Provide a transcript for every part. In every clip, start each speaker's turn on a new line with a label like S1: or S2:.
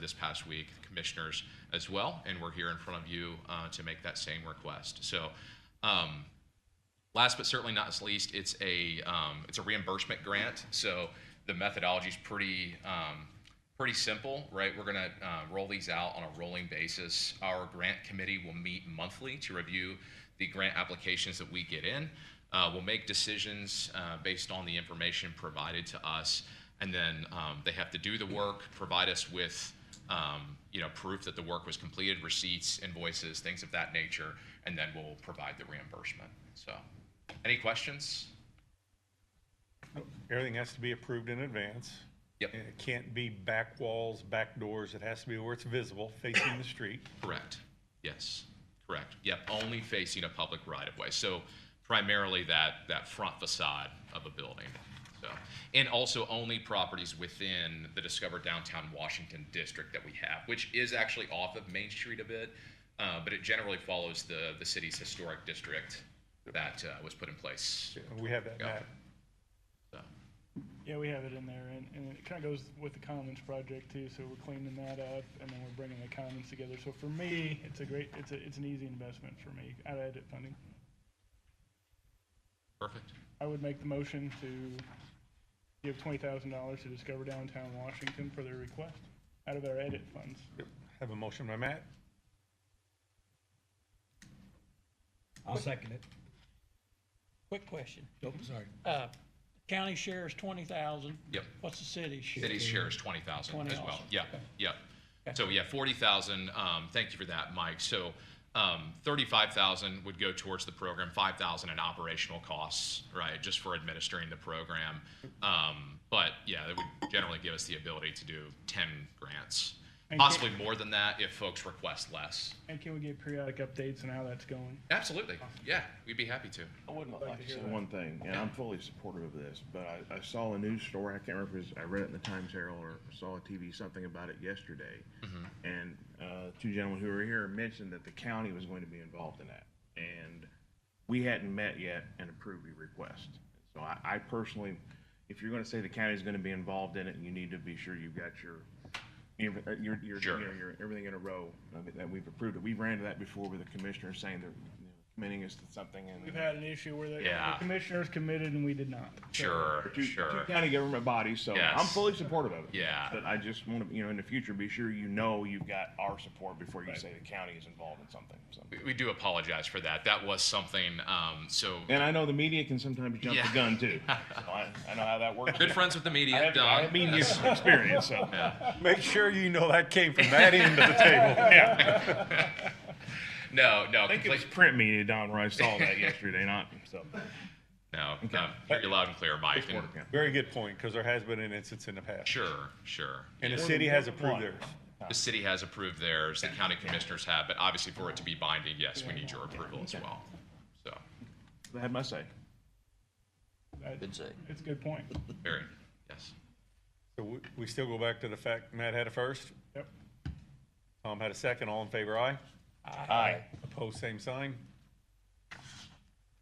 S1: this past week, the commissioners as well, and we're here in front of you uh, to make that same request. So, um, last but certainly not least, it's a um, it's a reimbursement grant. So the methodology is pretty um, pretty simple, right? We're gonna uh, roll these out on a rolling basis. Our grant committee will meet monthly to review the grant applications that we get in. Uh, we'll make decisions uh, based on the information provided to us, and then um, they have to do the work, provide us with um, you know, proof that the work was completed, receipts, invoices, things of that nature, and then we'll provide the reimbursement. So, any questions?
S2: Everything has to be approved in advance.
S1: Yep.
S2: And it can't be back walls, back doors. It has to be where it's visible, facing the street.
S1: Correct. Yes. Correct. Yep. Only facing a public right of way. So primarily that, that front facade of a building. So, and also only properties within the Discover Downtown Washington district that we have, which is actually off of Main Street a bit, uh, but it generally follows the, the city's historic district that uh, was put in place.
S2: We have that map.
S1: So,
S3: Yeah, we have it in there, and, and it kind of goes with the Commons project too. So we're cleaning that up, and then we're bringing the Commons together. So for me, it's a great, it's a, it's an easy investment for me out of edit funding.
S1: perfect.
S3: I would make the motion to give twenty thousand dollars to Discover Downtown Washington for their request out of our edit funds.
S2: Have a motion by Matt,
S4: I'll second it.
S5: Quick question.
S4: Nope, sorry.
S5: Uh, county share is twenty thousand.
S1: Yep.
S5: What's the city's share?
S1: City's share is twenty thousand as well.
S5: 20,000.
S1: Yeah, yeah. So yeah, forty thousand, um, thank you for that, Mike. So, um, thirty-five thousand would go towards the program, five thousand in operational costs, right, just for administering the program. Um, but yeah, that would generally give us the ability to do ten grants,
S3: And can-
S1: possibly more than that if folks request less.
S3: And can we get periodic updates on how that's going?
S1: Absolutely, yeah, we'd be happy to.
S4: I wouldn't like to hear
S6: So one thing, and I'm fully supportive of this, but I, I saw a news story, I can't remember if it was, I read it in the Times Herald or saw a TV, something about it yesterday. And, uh, two gentlemen who were here mentioned that the county was going to be involved in that. And we hadn't met yet and approved your request. So I, I personally, if you're gonna say the county's gonna be involved in it, you need to be sure you've got your, your, your, your,
S1: Sure.
S6: you know, your, everything in a row, I mean, that we've approved it. We ran into that before with the commissioner saying they're, you know, committing us to something and.
S3: We've had an issue where the, the
S1: Yeah.
S3: commissioners committed and we did not.
S1: Sure,
S6: two,
S1: sure.
S6: two county government bodies, so
S1: Yes.
S6: I'm fully supportive of it.
S1: Yeah.
S6: But I just want to, you know, in the future, be sure you know you've got our support before you say the county is involved in something. So.
S1: We- We do apologize for that. That was something, um, so
S6: And I know the media can sometimes jump
S1: Yeah.
S6: the gun too. So I, I know how that works.
S1: good friends with the
S6: I
S1: media,
S6: have, I
S1: Don.
S6: have media experience, so.
S2: make sure you know that came from that end of the table.
S6: Yeah.
S1: No, no,
S6: I think it was
S1: complete-
S6: print media, Don, where I saw that yesterday, not, so.
S1: No, no, hear you loud and clear, Mike. and-
S6: working.
S2: Very good point, because there has been an instance in the past.
S1: Sure, sure.
S2: And the
S1: Yeah.
S2: city has approved theirs.
S1: The city has approved theirs, the county commissioners have, but obviously for it to be binding, yes, we need your approval as well. So,
S6: I had my say.
S3: That-
S4: Good say.
S3: It's a good point.
S1: very, yes.
S2: So we, we still go back to the fact Matt had a first,
S3: Yep.
S2: Tom had a second, all in favor, aye.
S6: Aye.
S2: Opposed, same sign.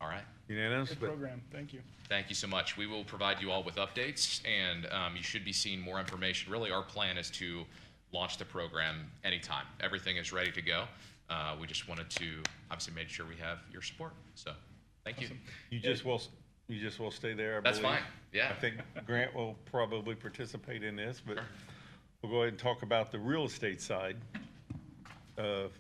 S1: All right.
S2: Unanimous,
S3: Good
S2: but
S3: program. Thank you.
S1: Thank you so much. We will provide you all with updates, and um, you should be seeing more information. Really, our plan is to launch the program anytime. Everything is ready to go. Uh, We just wanted to obviously make sure we have your support, so, thank you.
S2: you just will, you just will stay there, I
S1: That's
S2: believe.
S1: fine, yeah.
S2: I think Grant will probably participate in this, but we'll go ahead and talk about the real estate side of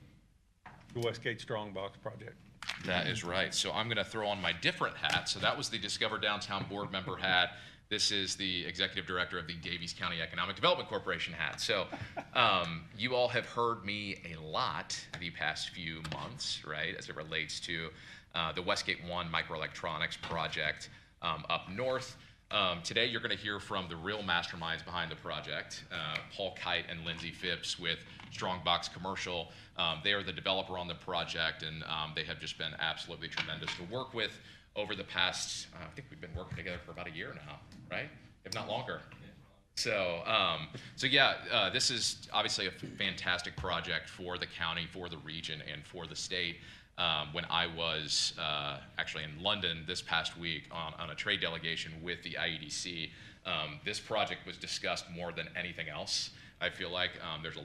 S2: the Westgate Strongbox project.
S1: That is right. So I'm going to throw on my different hat. So that was the Discover Downtown board member hat. This is the executive director of the Davies County Economic Development Corporation hat. So um, you all have heard me a lot the past few months, right, as it relates to uh, the Westgate One microelectronics project um, up north. Um, today, you're going to hear from the real masterminds behind the project, uh, Paul Kite and Lindsay Phipps with Strongbox Commercial. Um, they are the developer on the project, and um, they have just been absolutely tremendous to work with over the past. Uh, I think we've been working together for about a year now, right? If not longer. So, um, so yeah, uh, this is obviously a fantastic project for the county, for the region, and for the state. Um, when I was uh, actually in London this past week on, on a trade delegation with the E IEDC, um, this project was discussed more than anything else. I feel like um, there's a